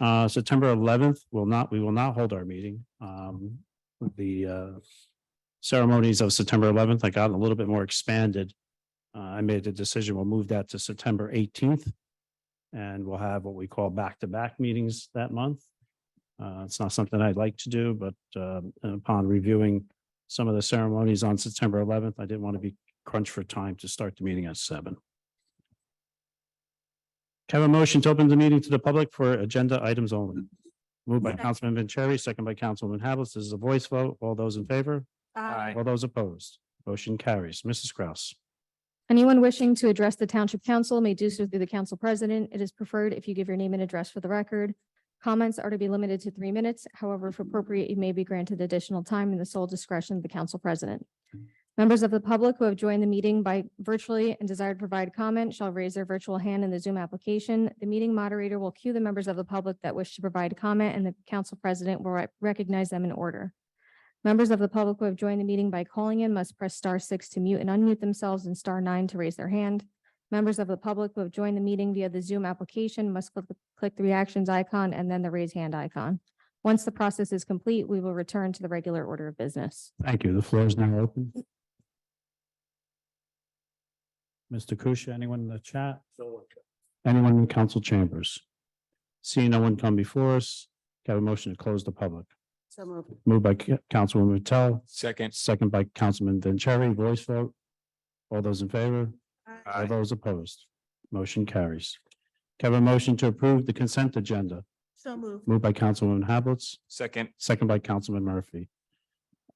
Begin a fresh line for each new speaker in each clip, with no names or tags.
Uh, September eleventh will not, we will not hold our meeting. Um, the uh ceremonies of September eleventh, I got a little bit more expanded. Uh, I made the decision, we'll move that to September eighteenth. And we'll have what we call back-to-back meetings that month. Uh, it's not something I'd like to do, but um, upon reviewing some of the ceremonies on September eleventh, I didn't want to be crunched for time to start the meeting at seven. Can I Have a motion to open the meeting to the public for agenda items only. Moved by Councilman Vanchery, second by Councilman Havelis. This is a voice vote. All those in favor?
Aye.
All those opposed? Motion carries. Mrs. Kraus.
Anyone wishing to address the Township Council may do so through the Council President. It is preferred if you give your name and address for the record. Comments are to be limited to three minutes. However, if appropriate, you may be granted additional time in the sole discretion of the Council President. Members of the public who have joined the meeting by virtually and desire to provide comment shall raise their virtual hand in the Zoom application. The meeting moderator will cue the members of the public that wish to provide comment, and the Council President will rec- recognize them in order. Members of the public who have joined the meeting by calling in must press star six to mute and unmute themselves and star nine to raise their hand. Members of the public who have joined the meeting via the Zoom application must click, the- click the reactions icon and then the raise hand icon. Once the process is complete, we will return to the regular order of business.
Thank you. The floor is now open. Mr. Kusia, anyone in the chat? Anyone in council chambers? Seeing no one come before us, can I have a motion to close the public.
So moved.
Moved by Ca- Councilwoman Patel,
Second.
second by Councilman Vanchery, voice vote. All those in favor? All
Aye.
those opposed? Motion carries. Can I have a motion to approve the consent agenda?
So moved.
Moved by Councilwoman Hablitz.
Second.
second by Councilman Murphy.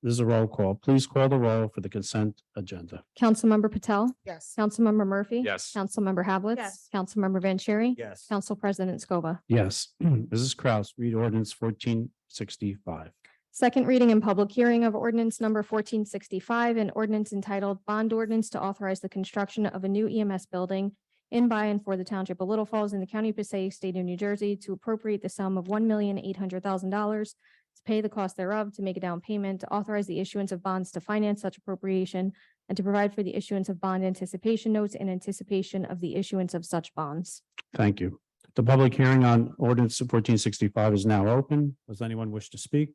This is a roll call. Please call the roll for the consent agenda.
Councilmember Patel,
Yes.
Councilmember Murphy.
Yes.
Councilmember Havletts,
Yes.
Councilmember Vanchery,
Yes.
Council President Scoba.
Yes, Mrs. Kraus, read ordinance fourteen sixty-five.
Second reading and public hearing of ordinance number fourteen sixty-five, an ordinance entitled Bond Ordinance to Authorize the Construction of a New EMS Building in by and for the Township of Little Falls in the County of Passaic, State of New Jersey, to appropriate the sum of one million eight hundred thousand dollars to pay the cost thereof, to make a down payment, to authorize the issuance of bonds to finance such appropriation, and to provide for the issuance of bond anticipation notes in anticipation of the issuance of such bonds.
Thank you. The public hearing on ordinance fourteen sixty-five is now open. Does anyone wish to speak?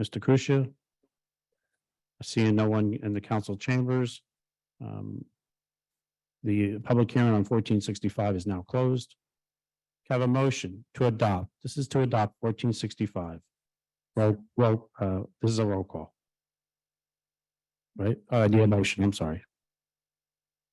Mr. Kusia? Seeing no one in the council chambers. um, The public hearing on fourteen sixty-five is now closed. Can I Have a motion to adopt. This is to adopt fourteen sixty-five. Roll, roll, uh, this is a roll call. Right? Uh, the motion, I'm sorry.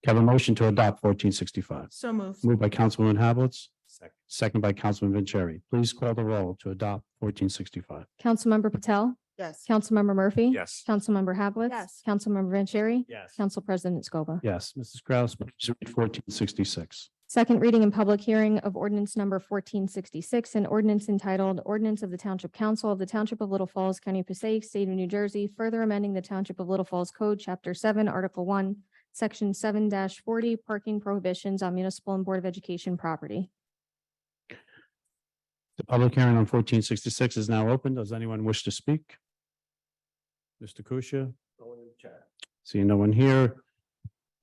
Can I Have a motion to adopt fourteen sixty-five.
So moved.
Moved by Councilwoman Havelitz,
Second.
second by Councilman Vanchery. Please call the roll to adopt fourteen sixty-five.
Councilmember Patel,
Yes.
Councilmember Murphy.
Yes.
Councilmember Havlet.
Yes.
Councilmember Vanchery.
Yes.
Council President Scoba.
Yes, Mrs. Kraus, please read fourteen sixty-six.
Second reading and public hearing of ordinance number fourteen sixty-six, an ordinance entitled Ordinance of the Township Council of the Township of Little Falls, County of Passaic, State of New Jersey, further amending the Township of Little Falls Code, Chapter seven, Article one, Section seven forty, parking prohibitions on municipal and Board of Education property.
The public hearing on fourteen sixty-six is now open. Does anyone wish to speak? Mr. Kusia? Seeing no one here.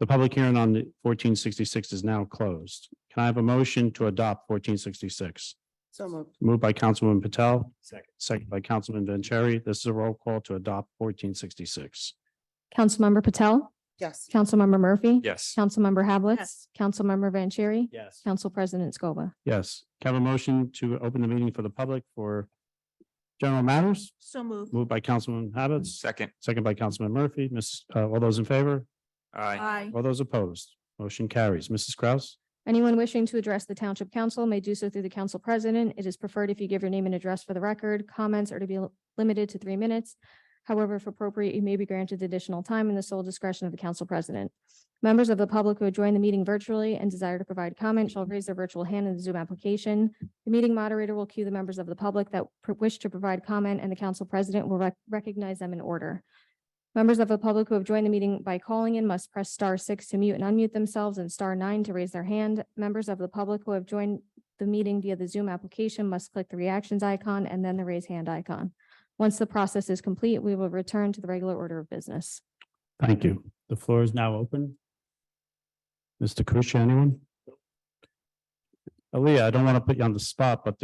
The public hearing on fourteen sixty-six is now closed. Can I have a motion to adopt fourteen sixty-six?
So moved.
Moved by Councilwoman Patel,
Second.
second by Councilman Vanchery. This is a roll call to adopt fourteen sixty-six.
Councilmember Patel,
Yes.
Councilmember Murphy.
Yes.
Councilmember Havletts,
Yes.
Councilmember Vanchery,
Yes.
Council President Scoba.
Yes, can I have a motion to open the meeting for the public for general matters,
So moved.
moved by Councilman Habitz,
Second.
second by Councilman Murphy, Miss, uh, all those in favor,
Aye.
Aye.
all those opposed, motion carries. Mrs. Kraus?
Anyone wishing to address the Township Council may do so through the Council President. It is preferred if you give your name and address for the record. Comments are to be l- limited to three minutes. However, if appropriate, you may be granted additional time in the sole discretion of the Council President. Members of the public who join the meeting virtually and desire to provide comment shall raise their virtual hand in the Zoom application. The meeting moderator will cue the members of the public that pr- wish to provide comment, and the Council President will rec- recognize them in order. Members of the public who have joined the meeting by calling in must press star six to mute and unmute themselves and star nine to raise their hand. Members of the public who have joined the meeting via the Zoom application must click the reactions icon and then the raise hand icon. Once the process is complete, we will return to the regular order of business.
Thank you. The floor is now open. Mr. Kusia, anyone? Aaliyah, I don't want to put you on the spot, but